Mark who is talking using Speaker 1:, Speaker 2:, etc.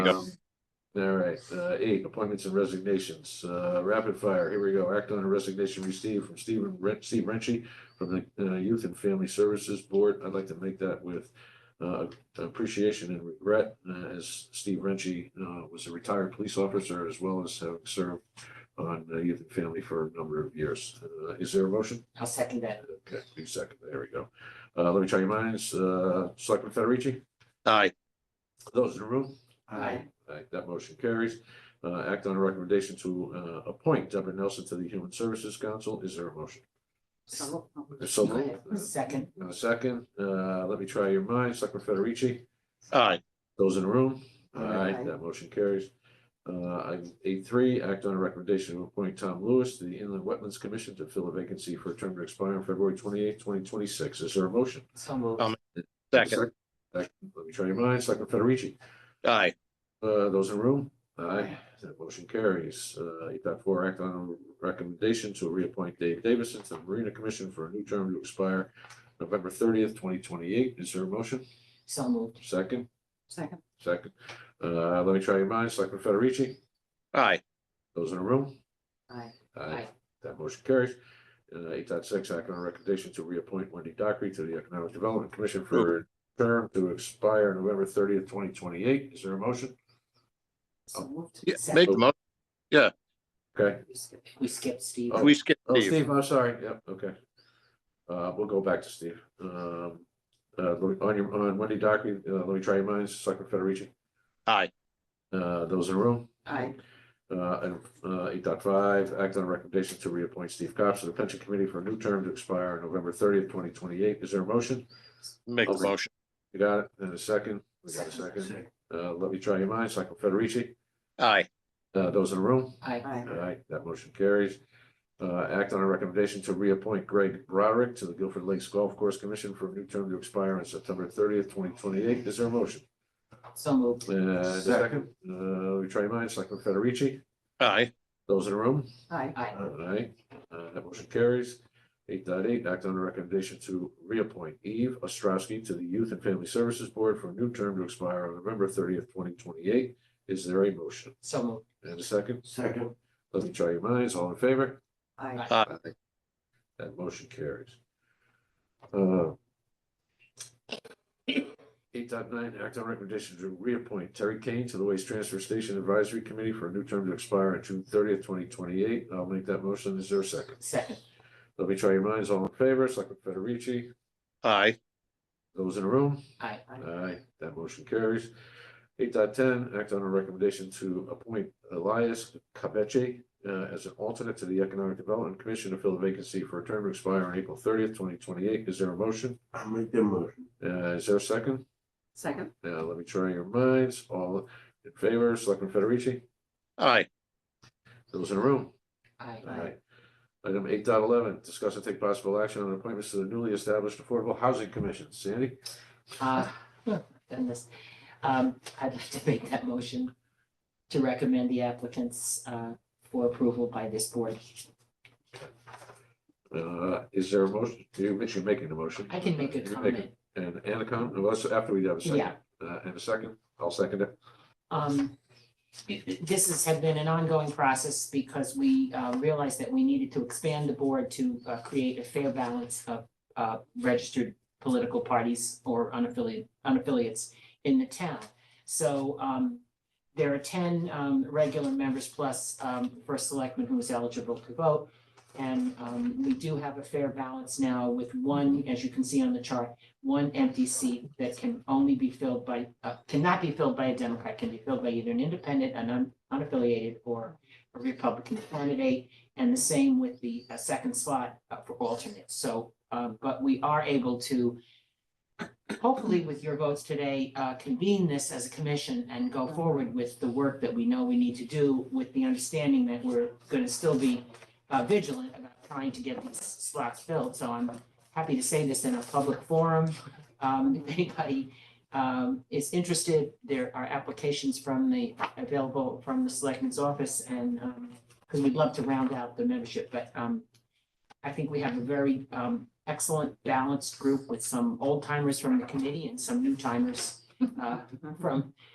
Speaker 1: Yep.
Speaker 2: Um, All right, uh, eight, appointments and resignations, uh, rapid fire, here we go, act on a resignation received from Stephen Ren- Steve Renshie from the, uh, Youth and Family Services Board, I'd like to make that with, uh, appreciation and regret, uh, as Steve Renshie, uh, was a retired police officer as well as having served on uh, Youth and Family for a number of years, uh, is there a motion?
Speaker 3: I'll second that.
Speaker 2: Okay, please second, there we go, uh, let me try your minds, uh, Selectman Federici,
Speaker 1: aye,
Speaker 2: those in the room?
Speaker 3: Aye.
Speaker 2: Aye, that motion carries. Uh, act on a recommendation to, uh, appoint Deborah Nelson to the Human Services Council. Is there a motion?
Speaker 3: So.
Speaker 2: So moved.
Speaker 3: Second.
Speaker 2: And a second, uh, let me try your minds. Selectman Federici,
Speaker 1: aye,
Speaker 2: those in the room? Aye,
Speaker 3: Aye.
Speaker 2: that motion carries. Uh, eight three, act on a recommendation to appoint Tom Lewis to the Inland Wetlands Commission to fill a vacancy for a term to expire on February twenty-eighth, twenty twenty-six. Is there a motion?
Speaker 3: So moved.
Speaker 1: Um, second,
Speaker 2: Second, Let me try your minds. Selectman Federici?
Speaker 1: aye,
Speaker 2: Uh, those in the room? Aye, that motion carries. Uh, eight dot four, act on a recommendation to reappoint Dave Davison to the Marina Commission for a new term to expire November thirtieth, twenty twenty-eight. Is there a motion?
Speaker 3: So moved.
Speaker 2: Second,
Speaker 3: Second.
Speaker 2: second. Uh, let me try your minds. Selectman Federici,
Speaker 1: aye,
Speaker 2: those in the room?
Speaker 3: Aye.
Speaker 2: Aye. That motion carries. Uh, eight dot six, act on a recommendation to reappoint Wendy Dockery to the Economic Development Commission for a term to expire November thirtieth, twenty twenty-eight. Is there a motion?
Speaker 3: So moved.
Speaker 1: Yeah, make
Speaker 3: Second.
Speaker 1: the mo,
Speaker 2: Okay.
Speaker 3: We skip- We skipped Steve.
Speaker 2: Oh.
Speaker 1: we skip
Speaker 2: Oh,
Speaker 1: Steve,
Speaker 2: Steve, I'm sorry, yep, okay. Uh, we'll go back to Steve. Um, uh, let me- on your, on Wendy Dockery, uh, let me try your minds, Selectman Federici,
Speaker 1: aye,
Speaker 2: uh, those in the room?
Speaker 3: Aye.
Speaker 2: Uh, and, uh, eight dot five, act on a recommendation to reappoint Steve Cox to the pension committee for a new term to expire November thirtieth, twenty twenty-eight. Is there a motion?
Speaker 1: make the
Speaker 2: Okay.
Speaker 1: motion,
Speaker 2: You got it, and a second, we got a second. Uh, let me try your minds, Selectman Federici,
Speaker 1: aye,
Speaker 2: uh, those in the room?
Speaker 3: Aye.
Speaker 2: Aye, that motion carries. Uh, act on a recommendation to reappoint Greg Broderick to the Guilford Lakes Golf Course Commission for a new term to expire on September thirtieth, twenty twenty-eight. Is there a motion?
Speaker 3: So moved.
Speaker 2: And a second, uh, we try mine, Selectman Federici,
Speaker 1: aye,
Speaker 2: those in the room?
Speaker 3: Aye. Aye.
Speaker 2: Aye, uh, that motion carries. Eight dot eight, act on a recommendation to reappoint Eve Ostrowski to the Youth and Family Services Board for a new term to expire on November thirtieth, twenty twenty-eight. Is there a motion?
Speaker 3: So moved.
Speaker 2: And a second? Second. Let me try your minds, all in favor?
Speaker 3: Aye.
Speaker 1: aye,
Speaker 2: That motion carries. Uh, 8.9 act on recommendation to reappoint Terry Kane to the Waste Transfer Station Advisory Committee for a new term to expire on June thirtieth, twenty twenty-eight. I'll make that motion. Is there a second?
Speaker 3: Second.
Speaker 2: Let me try your minds. All in favor, Selectman Federici,
Speaker 1: aye,
Speaker 2: those in the room?
Speaker 3: Aye.
Speaker 2: Aye, that motion carries. Eight dot ten, act on a recommendation to appoint Elias Cabeche uh, as an alternate to the Economic Development Commission to fill the vacancy for a term to expire on April thirtieth, twenty twenty-eight. Is there a motion?
Speaker 4: I'll make the motion.
Speaker 2: Uh, is there a second?
Speaker 3: Second.
Speaker 2: Now, let me try your minds. All in favor, Selectman Federici,
Speaker 1: aye,
Speaker 2: those in the room?
Speaker 3: Aye.
Speaker 2: Item eight dot eleven, discuss and take possible action on appointments to the newly established Affordable Housing Commission. Sandy?
Speaker 3: Uh, Goodness. Um, I'd like to make that motion to recommend the applicants uh, for approval by this board.
Speaker 2: Uh, is there a motion? You're you're making the motion.
Speaker 3: I can make a
Speaker 2: You're making-
Speaker 3: comment.
Speaker 2: And, and a comment, well, that's after we have a second,
Speaker 3: Yeah.
Speaker 2: uh, and a second, I'll second it.
Speaker 3: um, this has had been an ongoing process because we uh, realized that we needed to expand the board to uh, create a fair balance of uh, registered political parties or unaffiliated, unaffiliates in the town. So um, there are ten um, regular members plus um, first selectman who is eligible to vote. And um, we do have a fair balance now with one, as you can see on the chart, one empty seat that can only be filled by, uh, cannot be filled by a Democrat, can be filled by either an independent, an un- unaffiliated, or a Republican candidate, and the same with the uh, second slot uh, for alternates. So, um, but we are able to, hopefully with your votes today, uh, convene this as a commission and go forward with the work that we know we need to do with the understanding that we're going to still be uh, vigilant about trying to get these slots filled. So I'm happy to say this in a public forum. Um, if anybody, um, is interested, there are applications from the, available from the selectmen's office and, um, because we'd love to round out the membership, but, um, I think we have a very, um, excellent balanced group with some old timers from the committee and some new timers, uh, from